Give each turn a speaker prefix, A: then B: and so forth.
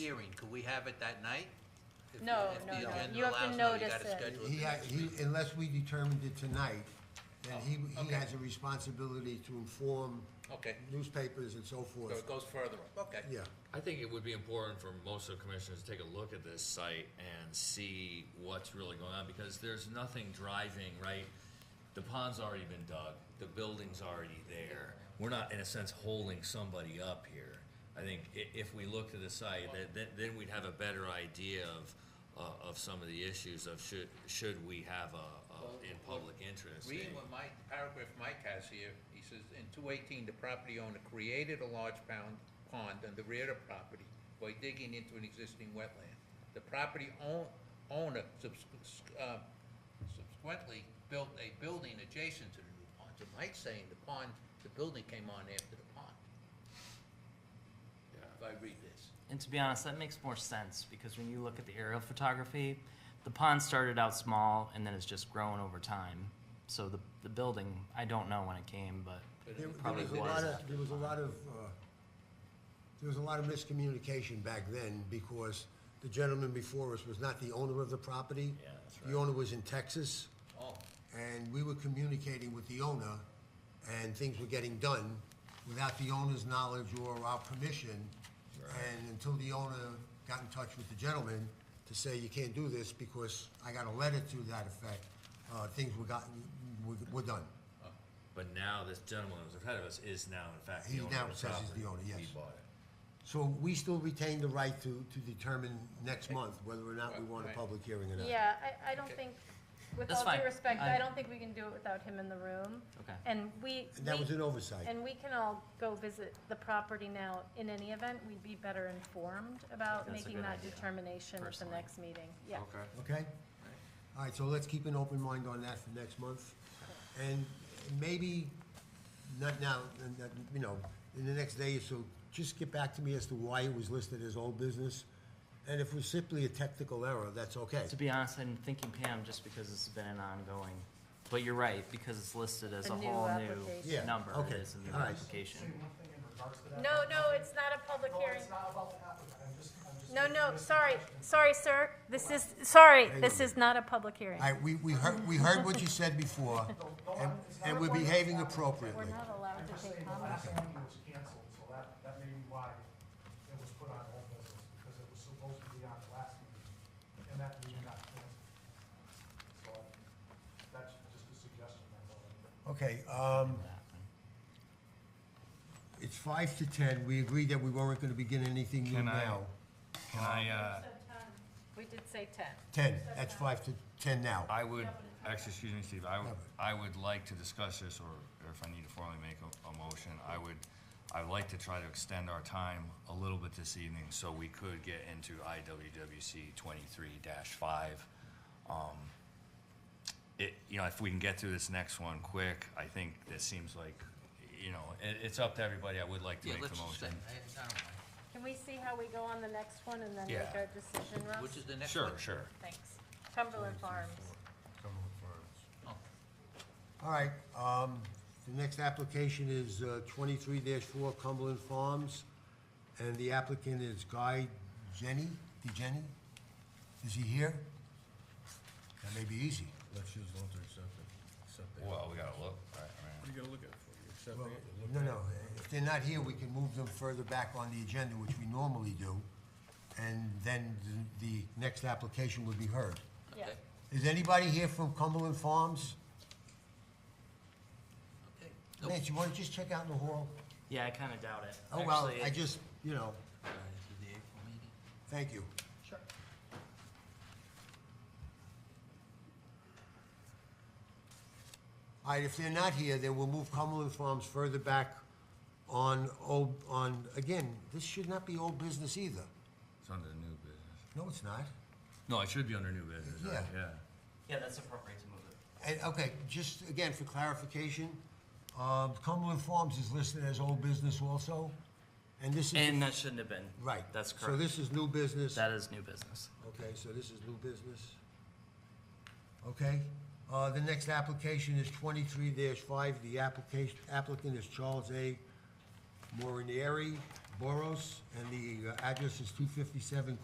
A: hearing, could we have it that night? If-
B: No,
A: if
B: no,
A: the
B: no.
A: agenda
B: You have to
A: allows, no,
B: notice
A: gotta
B: it.
A: schedule
C: He,
A: the
C: ha-
A: next
C: he,
A: meeting.
C: unless we determined it tonight, then he, he
A: okay.
C: has a responsibility to inform
A: Okay,
C: newspapers and so
A: so
C: forth.
A: it goes further, okay.
C: Yeah,
D: I think it would be important for most of the commissioners to take a look at this site and see what's really going on, because there's nothing driving, right? The pond's already been dug, the building's already there, we're not, in a sense, holding somebody up here. I think i- if we look to the site, that, that, then we'd have a better idea of, uh, of some of the issues of should, should we have a, a, in public interest.
A: Reading
D: in-
A: what Mike, paragraph Mike has here, he says, in two eighteen, the property owner created a large pound, pond on the rear of the property by digging into an existing wetland. The property own, owner subs- uh, subsequently built a building adjacent to the new pond. So Mike's saying the pond, the building came on after the pond. If I read this.
E: And to be honest, that makes more sense because when you look at the aerial photography, the pond started out small and then it's just grown over time. So the, the building, I don't know when it came, but
A: But
C: there, there
E: Probably
C: was a lot
E: was.
C: of, there was a lot of, uh, there was a lot of miscommunication back then because the gentleman before us was not the owner of the property.
D: Yeah, that's
C: The owner was in Texas.
A: Oh,
C: and we were communicating with the owner, and things were getting done without the owner's knowledge or our permission. And until the owner got in touch with the gentleman to say, you can't do this because I got a letter to that effect, uh, things were gotten, were, were done.
D: But now this gentleman who's ahead of us is now in fact
C: He
D: the owner of the
C: now
D: property.
C: says he's the owner, yes.
D: He bought it.
C: So we still retain the right to, to determine next month whether or not we want a
A: Right.
C: public hearing or not.
B: Yeah, I, I don't think, with
E: That's
B: all due
E: fine.
B: respect, I
E: I-
B: don't think we can do it without him in the room.
E: Okay.
B: And we,
C: And that
B: we-
C: was an oversight.
B: and we can all go visit the property now. In any event, we'd be better informed about
E: That's a
B: making
E: good
B: that
E: idea,
B: determination at the
E: personally.
B: next meeting. Yeah.
C: Okay? All right, so let's keep an open mind on that for next month. And maybe, not now, and that, you know, in the next day or so, just get back to me as to why it was listed as old business. And if it was simply a technical error, that's okay.
E: to be honest, I'm thinking Pam just because it's been an ongoing. But you're right, because it's listed as
B: A
E: a
B: new
E: whole
B: application.
C: Yeah,
E: new number,
C: okay,
E: it is a new
C: all right.
E: application.
F: Say one thing in regards to that.
B: No, no, it's not a public
F: No,
B: hearing.
F: it's not about the applicant, I'm just, I'm just.
B: No, no,
F: just-
B: sorry, sorry, sir. This is, sorry,
C: Hang
B: this
C: on.
B: is not a public hearing.
C: All right, we, we heard, we heard what you said before, and, and we're behaving
B: We're
C: appropriately.
B: not allowed
F: I'm
B: to
F: just
B: take
F: saying, the
B: comments.
F: last meeting was canceled, so that, that may be why it was put on hold business, because it was supposed to be on the last meeting, and that meeting got canceled. So, that's just a suggestion, that's all.
C: Okay, um, it's five to ten, we agreed that we weren't gonna begin anything new
G: Can I-
C: now.
G: Can I, uh,
B: We did say ten.
C: Ten, that's five to ten now.
G: I would, actually, excuse me, Steve, I, would- I would like to discuss this, or or if I need to formally make a, a motion, I would, I'd like to try to extend our time a little bit this evening, so we could get into IWWC twenty-three five. Um, It, you know, if we can get through this next one quick, I think this seems like, you know, it, it's up to everybody, I would like to
A: yeah,
G: make the
A: let's just, I,
G: motion.
A: I don't mind.
B: Can we see how we go on the next one and then make
G: Yeah.
B: our decision, Russ?
A: Which is the next one?
G: Sure, sure.
B: Thanks. Cumberland Farms.
A: Oh,
C: All right, um, the next application is uh, twenty-three four Cumberland Farms, and the applicant is Guy Jenny, DeJenny? Is he here? That may be easy.
H: Let's just vote to accept it, accept it.
G: Well, we gotta look, all right, all
H: What are you gonna look at for? You accept
C: Well,
H: it, you look
C: No,
H: at
C: no, if they're not here, we can move them further back on the agenda, which we normally do, and then the, the next application would be heard.
B: Yeah.
A: okay,
C: Is anybody here from Cumberland Farms?
A: okay. Nope.
C: Mitch, you wanna just check out in the hall?
E: Yeah, I kinda doubt it.
C: Oh, well,
E: Actually,
C: I just, you know,
A: All right, this is the April meeting.
C: thank you. All right, if they're not here, then we'll move Cumberland Farms further back on old, on, again, this should not be old business either.
G: right. It's under new business.
C: No, it's not.
G: No, it should be under new business, right?
C: Yeah.
G: yeah.
E: Yeah, that's appropriate to move it.
C: And, okay, just again, for clarification, um, Cumberland Farms is listed as old business also, and this is.
E: And that shouldn't have been.
C: Right.
E: That's
C: So
E: correct.
C: this is new business.
E: That is new business.
C: Okay, so this is new business. Okay, uh, the next application is twenty-three five, the application, applicant is Charles A. Morinieri, Boros, and the uh, address is two fifty-seven